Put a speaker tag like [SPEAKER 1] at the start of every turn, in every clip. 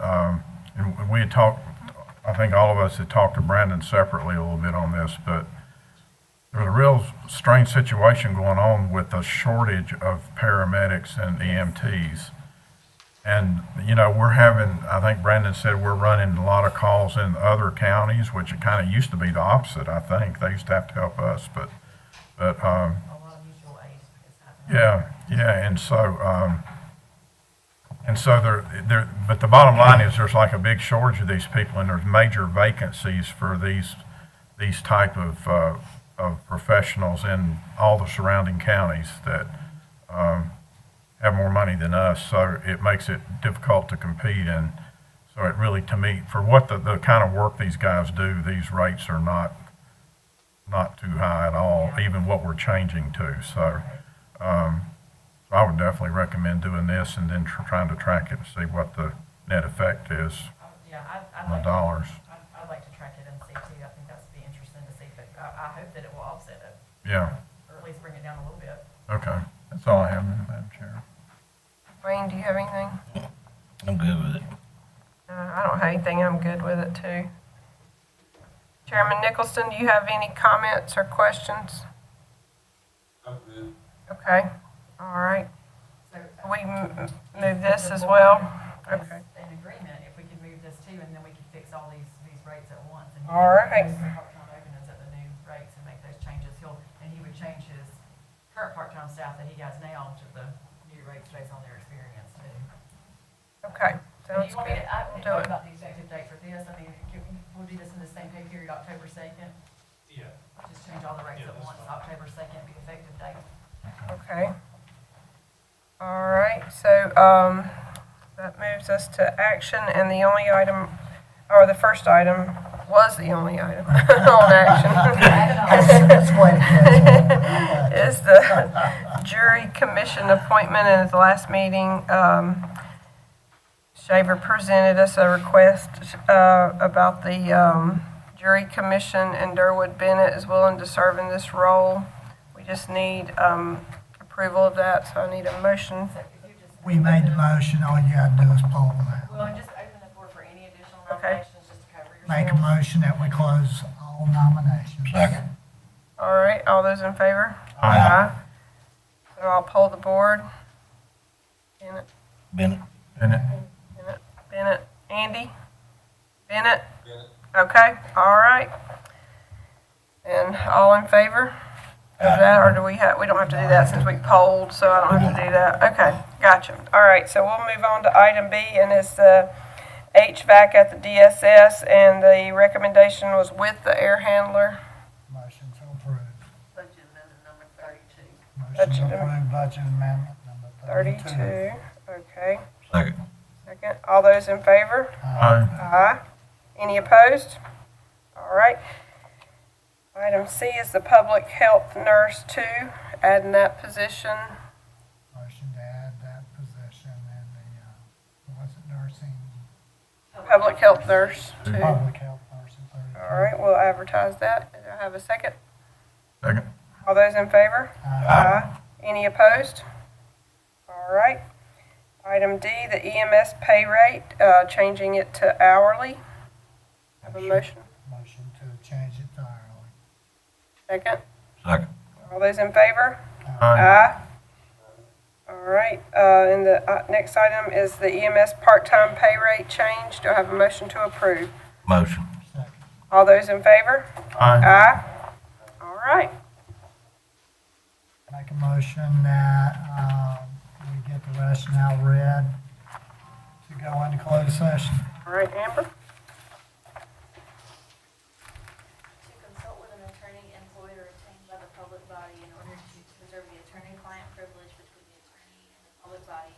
[SPEAKER 1] Um, And and we had talked, I think all of us had talked to Brandon separately a little bit on this, but there's a real strange situation going on with the shortage of paramedics and EMTs. And, you know, we're having, I think Brandon said we're running a lot of calls in other counties, which it kind of used to be the opposite, I think. They used to have to help us, but, but, um,
[SPEAKER 2] a lot of Oh, mutual aid is happening.
[SPEAKER 1] yeah, yeah, and so, um, and so there, there, but the bottom line is there's like a big shortage of these people and there's major vacancies for these, these type of, uh, of professionals in all the surrounding counties that, um, have more money than us, so it makes it difficult to compete and so it really, to me, for what the, the kind of work these guys do, these rates are not, not too high at all, even what we're changing to, so. Um, so I would definitely recommend doing this and then tr- trying to track it and see what the net effect is
[SPEAKER 2] I- Yeah, I, I'd
[SPEAKER 1] on the
[SPEAKER 2] like,
[SPEAKER 1] dollars.
[SPEAKER 2] I'd, I'd like to track it and see too, I think that's be interesting to see, but I, I hope that it will offset it,
[SPEAKER 1] Yeah,
[SPEAKER 2] or at least bring it down a little bit.
[SPEAKER 1] okay. That's all I have, Madam Chair.
[SPEAKER 3] Wayne, do you have anything?
[SPEAKER 4] I'm good with it.
[SPEAKER 3] Uh, I don't have anything. I'm good with it too. Chairman Nicholson, do you have any comments or questions? Okay, all right.
[SPEAKER 2] So uh,
[SPEAKER 3] We m- m- move this as well?
[SPEAKER 2] is
[SPEAKER 3] Okay.
[SPEAKER 2] in agreement, if we could move this too, and then we could fix all these, these rates at once. and
[SPEAKER 3] All right.
[SPEAKER 2] those Part-time openings at the new rates and make those changes, he'll, and he would change his current part-time staff that he has now to the new rates based on their experience too.
[SPEAKER 3] Okay,
[SPEAKER 2] Do
[SPEAKER 3] sounds
[SPEAKER 2] you want me to,
[SPEAKER 3] good.
[SPEAKER 2] I,
[SPEAKER 3] We'll
[SPEAKER 2] talk
[SPEAKER 3] do it.
[SPEAKER 2] about the effective date for this, I mean, can we- we'll do this in the same pay period, October second?
[SPEAKER 5] Yeah,
[SPEAKER 2] Just change all the rates at
[SPEAKER 5] Yeah, that's
[SPEAKER 2] once, October second be effective date.
[SPEAKER 3] Okay. All right, so, um, that moves us to action and the only item, or the first item was the only item on action.
[SPEAKER 6] That's what it
[SPEAKER 3] Is the jury commission appointment and at the last meeting, um, Shaver presented us a request, uh, about the, um, jury commission and Durwood Bennett is willing to serve in this role. We just need, um, approval of that, so I need a motion.
[SPEAKER 2] So if you just.
[SPEAKER 6] We made the motion, all you gotta do is poll that.
[SPEAKER 2] Well, just open the floor for any additional
[SPEAKER 3] Okay.
[SPEAKER 2] nominations, just to cover yourself.
[SPEAKER 6] Make a motion that we close all nominations.
[SPEAKER 4] Second.
[SPEAKER 3] All right, all those in favor?
[SPEAKER 4] Aye.
[SPEAKER 3] So I'll poll the board. Bennett,
[SPEAKER 4] Bennett,
[SPEAKER 1] And it,
[SPEAKER 3] Bennett, Bennett, Andy? Bennett? Okay, all right. And all in favor of that, or do we have, we don't have to do that since we polled, so I don't have to do that. Okay, gotcha. All right, so we'll move on to item B, and it's the HVAC at the DSS, and the recommendation was with the air handler.
[SPEAKER 6] Motion to approve.
[SPEAKER 2] Budget amendment number thirty-two.
[SPEAKER 6] Motion
[SPEAKER 3] Budget
[SPEAKER 6] to
[SPEAKER 3] am-
[SPEAKER 6] approve budget amendment number thirty-two.
[SPEAKER 3] Thirty-two, okay.
[SPEAKER 4] second.
[SPEAKER 3] Second, all those in favor?
[SPEAKER 6] Uh,
[SPEAKER 3] Aye. Any opposed? All right. Item C is the public health nurse two, adding that position.
[SPEAKER 6] Motion to add that position in the, uh, was it nursing,
[SPEAKER 3] Public health nurse two. All
[SPEAKER 6] public health nursing thirty-two?
[SPEAKER 3] right, we'll advertise that. Do I have a second?
[SPEAKER 1] second,
[SPEAKER 3] All those in favor?
[SPEAKER 6] Uh,
[SPEAKER 3] Any opposed? All right. Item D, the EMS pay rate, uh, changing it to hourly. Have a motion?
[SPEAKER 6] Motion to change it to hourly.
[SPEAKER 3] Second.
[SPEAKER 4] Second.
[SPEAKER 3] All those in favor?
[SPEAKER 6] Uh,
[SPEAKER 1] aye,
[SPEAKER 3] Aye. All right, uh, and the uh, next item is the EMS part-time pay rate change. Do I have a motion to approve?
[SPEAKER 4] Motion.
[SPEAKER 6] Second.
[SPEAKER 3] All those in favor?
[SPEAKER 1] aye,
[SPEAKER 3] Aye. All right,
[SPEAKER 6] Make a motion that, um, we get the rationale read to go into closed session.
[SPEAKER 3] all right, Amber?
[SPEAKER 7] to consult with an attorney employed or retained by the public body in order to preserve the attorney-client privilege between the attorney and the public body,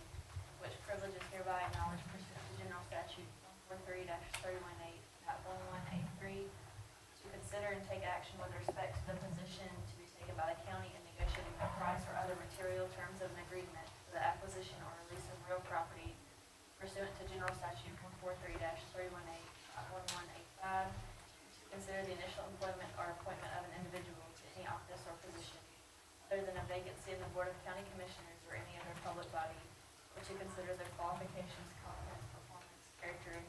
[SPEAKER 7] which privilege is hereby acknowledged pursuant to General Statute one four three thirty-one eight, one one eight three, to consider and take action with respect to the position to be taken by the county in negotiating the price or other material terms of an agreement for the acquisition or release of real property pursuant to General Statute one four three three one eight, one one eight five, to consider the initial employment or appointment of an individual to any office or position other than a vacancy in the Board of County Commissioners or any other public body, or to consider their qualifications,